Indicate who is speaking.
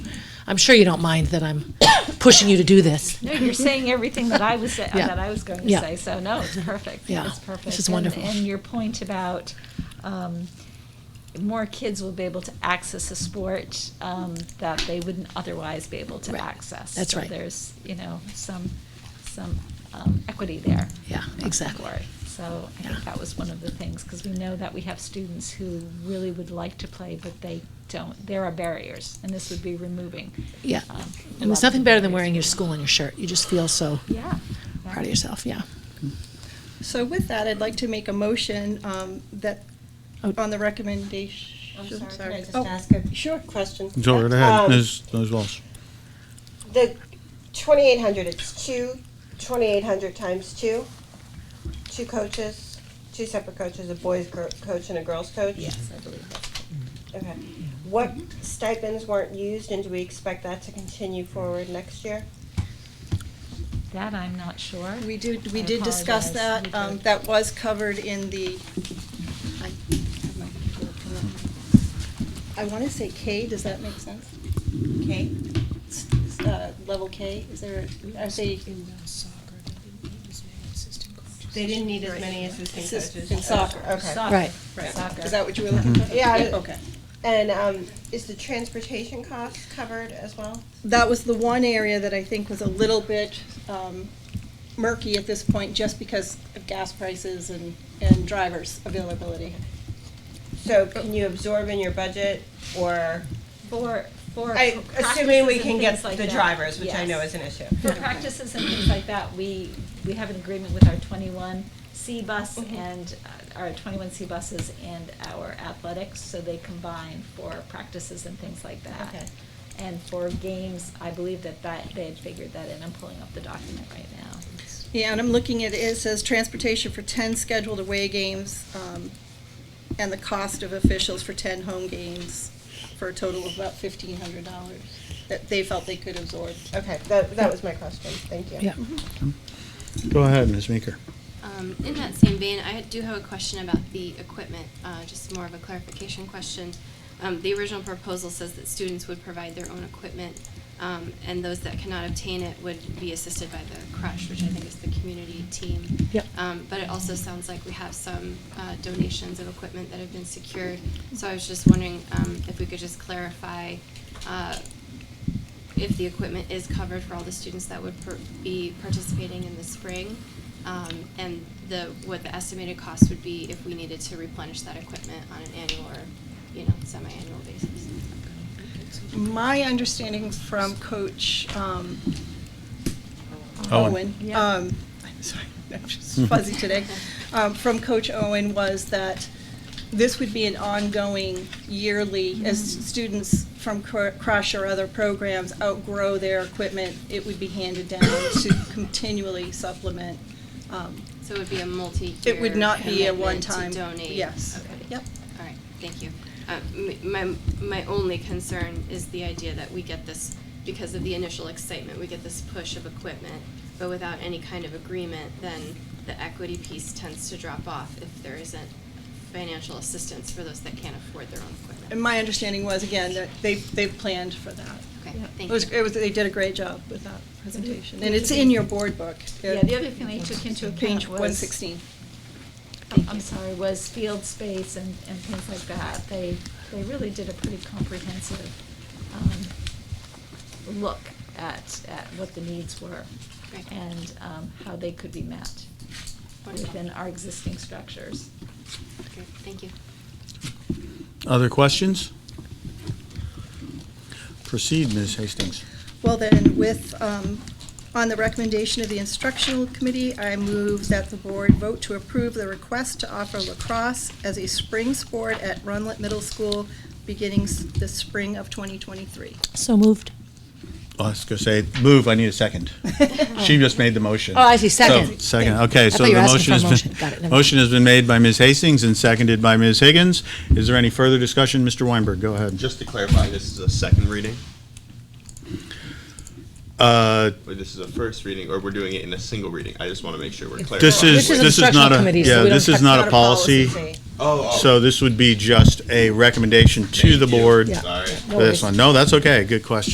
Speaker 1: I'm sure you don't mind that I'm pushing you to do this.
Speaker 2: No, you're saying everything that I was, sa-
Speaker 1: Yeah.
Speaker 2: that I was going to
Speaker 1: Yeah.
Speaker 2: say, so no, it's perfect.
Speaker 1: Yeah.
Speaker 2: It's perfect.
Speaker 1: This is
Speaker 2: And-
Speaker 1: wonderful.
Speaker 2: And your point about, um, more kids will be able to access a sport, um, that they wouldn't otherwise be able to
Speaker 1: Right.
Speaker 2: access.
Speaker 1: That's
Speaker 2: So
Speaker 1: right.
Speaker 2: There's, you know, some, some, um, equity there.
Speaker 1: Yeah,
Speaker 2: in that
Speaker 1: exactly.
Speaker 2: category. So I
Speaker 1: Yeah.
Speaker 2: think that was one of the things, because we know that we have students who really would like to play, but they don't. There are barriers, and this would be removing.
Speaker 1: Yeah. And
Speaker 2: um, a lot of
Speaker 1: there's
Speaker 2: the
Speaker 1: nothing better than
Speaker 2: barriers.
Speaker 1: wearing your school on your shirt. You just feel so
Speaker 2: Yeah.
Speaker 1: proud of yourself. Yeah.
Speaker 3: So with that, I'd like to make a motion um, that,
Speaker 1: Oh.
Speaker 3: on the recommendation.
Speaker 4: I'm sorry, can I just
Speaker 3: Oh,
Speaker 4: ask a
Speaker 3: Sure.
Speaker 4: question?
Speaker 5: Go right
Speaker 4: Um,
Speaker 5: ahead, Ms. Ms. Walsh.
Speaker 4: The twenty-eight hundred, it's two, twenty-eight hundred times two? Two coaches, two separate coaches, a boys gr- coach and a girls coach?
Speaker 2: Yes, I believe that.
Speaker 4: Okay. What stipends weren't used and do we expect that to continue forward next year?
Speaker 2: That I'm not sure.
Speaker 3: We did,
Speaker 2: I
Speaker 3: we did discuss
Speaker 2: apologize. We
Speaker 3: that. Um,
Speaker 2: did.
Speaker 3: That was covered in the, I have my computer pulled up. I want to say K, does that make sense? K? S- uh, Level K, is there, are they?
Speaker 4: They didn't need as many assistant
Speaker 3: Assist-
Speaker 4: coaches.
Speaker 3: in soccer, okay.
Speaker 2: Soccer.
Speaker 1: Right.
Speaker 3: Right.
Speaker 2: Soccer.
Speaker 3: Is that what you were looking for?
Speaker 4: Yeah, I-
Speaker 3: Okay.
Speaker 4: And, um, is the transportation cost covered as well?
Speaker 3: that was the one area that I think was a little bit um, murky at this point, just because of gas prices and, and drivers availability.
Speaker 4: So can you absorb in your budget or?
Speaker 2: For, for.
Speaker 4: I,
Speaker 2: for
Speaker 4: assuming we
Speaker 2: practices
Speaker 4: can
Speaker 2: and
Speaker 4: get
Speaker 2: things like
Speaker 4: the
Speaker 2: that.
Speaker 4: drivers, which I
Speaker 2: Yes.
Speaker 4: know is an issue.
Speaker 2: For practices and things like that, we, we have an agreement with our twenty-one C bus
Speaker 4: Mhm.
Speaker 2: and uh, our twenty-one C buses and our athletics, so they combine for practices and things like that.
Speaker 4: Okay.
Speaker 2: And for games, I believe that that, they had figured that in. I'm pulling up the document right now.
Speaker 3: Yeah, and I'm looking at, it it says transportation for 10 scheduled away games, um, and the cost of officials for 10 home games, for a total of about $1,500 that they felt they could absorb. Mm-hmm.
Speaker 4: Okay, that, that was my question, thank you.
Speaker 1: Yeah.
Speaker 5: Go ahead, Ms. Meeker.
Speaker 6: Um, in that same vein, I do have a question about the equipment, uh, just more of a clarification question. Um, the original proposal says that students would provide their own equipment, um, and those that cannot obtain it would be assisted by the crush, which I think is the community team.
Speaker 1: Yep.
Speaker 6: Um, but it also sounds like we have some, uh, donations of equipment that have been secured, so I was just wondering, um, if we could just clarify, uh, if the equipment is covered for all the students that would per- be participating in the spring, um, and the, what the estimated cost would be if we needed to replenish that equipment on an annual or, you know, semi-annual basis.
Speaker 3: My understanding from Coach um,
Speaker 5: Owen.
Speaker 3: Owen,
Speaker 2: Yeah.
Speaker 3: um, I'm sorry, I'm just fuzzy today, um, from Coach Owen was that this would be an ongoing yearly, as
Speaker 6: Mm-hmm.
Speaker 3: students from Cr- Crush or other programs outgrow their equipment, it would be handed down to continually supplement. um,
Speaker 6: So it would be a multi-year
Speaker 3: It would not be a
Speaker 6: commitment
Speaker 3: one-time.
Speaker 6: to donate.
Speaker 3: Yes.
Speaker 6: Okay.
Speaker 3: Yep.
Speaker 6: All right, thank you. Uh, m- My, my only concern is the idea that we get this, because of the initial excitement, we get this push of equipment, but without any kind of agreement, then the equity piece tends to drop off if there isn't financial assistance for those that can't afford their own equipment.
Speaker 3: And my understanding was, again, that they, they planned for that.
Speaker 6: Okay,
Speaker 2: Yeah.
Speaker 3: It
Speaker 6: thank
Speaker 3: was,
Speaker 6: you.
Speaker 3: it was, they did a great job with that presentation, and it's in your board book.
Speaker 2: Yeah, the other thing they took into account was.
Speaker 3: Page one sixteen.
Speaker 2: I'm- I'm sorry, was field space and, and things like that. They, they really did a pretty comprehensive um, look at, at what the needs were
Speaker 6: Right.
Speaker 2: and um, how they could be met
Speaker 6: Wonderful.
Speaker 2: within our existing structures.
Speaker 6: Great, Thank you.
Speaker 5: Other questions? Proceed, Ms. Hastings.
Speaker 3: Well then, with, um, on the recommendation of the instructional committee, I move that the board vote to approve the request to offer lacrosse as a spring sport at Runlet Middle School beginning s- the spring of twenty twenty-three.
Speaker 1: So moved.
Speaker 5: Oh, I was gonna say, move, I need a second. She just made the motion.
Speaker 1: Oh, I see,
Speaker 5: So,
Speaker 1: second.
Speaker 5: Second, okay,
Speaker 1: I
Speaker 5: so
Speaker 1: thought you
Speaker 5: the
Speaker 1: were asking
Speaker 5: motion has
Speaker 1: for a
Speaker 5: been.
Speaker 1: motion. Got it, never mind.
Speaker 5: Motion has been made by Ms. Hastings and seconded by Ms. Higgins. Is there any further discussion? Mr. Weinberg, go ahead.
Speaker 7: Just to clarify, this is a second reading,
Speaker 5: Uh,
Speaker 7: or this is a first reading, or we're doing it in a single reading? I just want to make sure we're clear.
Speaker 5: This is,
Speaker 1: This is
Speaker 5: this is
Speaker 1: instructional
Speaker 5: not a,
Speaker 1: committee, so we
Speaker 5: yeah,
Speaker 1: don't
Speaker 5: this
Speaker 1: touch-
Speaker 5: is not a policy.
Speaker 7: Oh, oh.
Speaker 5: So this would be just a recommendation to
Speaker 7: Thank
Speaker 5: the
Speaker 7: you.
Speaker 5: board.
Speaker 1: Yeah.
Speaker 7: Sorry.
Speaker 1: No
Speaker 5: for This
Speaker 1: worries.
Speaker 5: one, no, that's okay, good question.